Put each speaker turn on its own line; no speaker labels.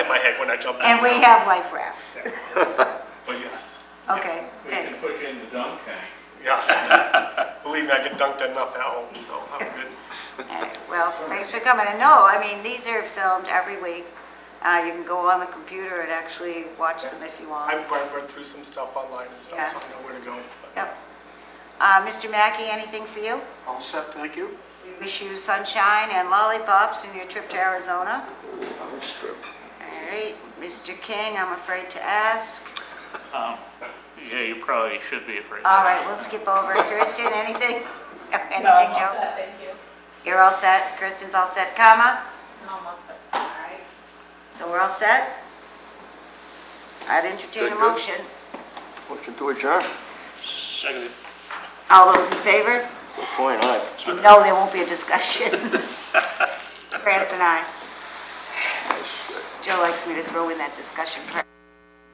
my head when I jumped.
And
out,
we
so-
have life rafts.
But yes,
Okay,
We can
thanks.
push in the dunk tank.
yeah. Believe me, I get dunked enough at home, so I'm good.
All right, Well, thanks for coming. And no, I mean, these are filmed every week. Uh, You can go on the computer and actually watch them if you want.
I've read, read through some stuff online and
Yeah.
stuff, so I know where to go. but-
Yep. Uh, Mr. Mackey, anything for you?
All set, thank you.
Wish you sunshine and lollipops in your trip to Arizona. All right, Mr. King, I'm afraid to ask.
Yeah, you probably should be afraid.
All right, we'll skip over. Kirsten, anything? Anything,
No, I'm all
Joe?
set, Thank you.
You're all set, Kirsten's all set, comma?
I'm all set. All right.
So we're all set? I'd entertain a
Good, good.
motion.
Motion to adjourn.
Seconded.
All those in favor?
Good point, aye.
No, there won't be a discussion. France and I. Joe likes me to throw in that discussion part.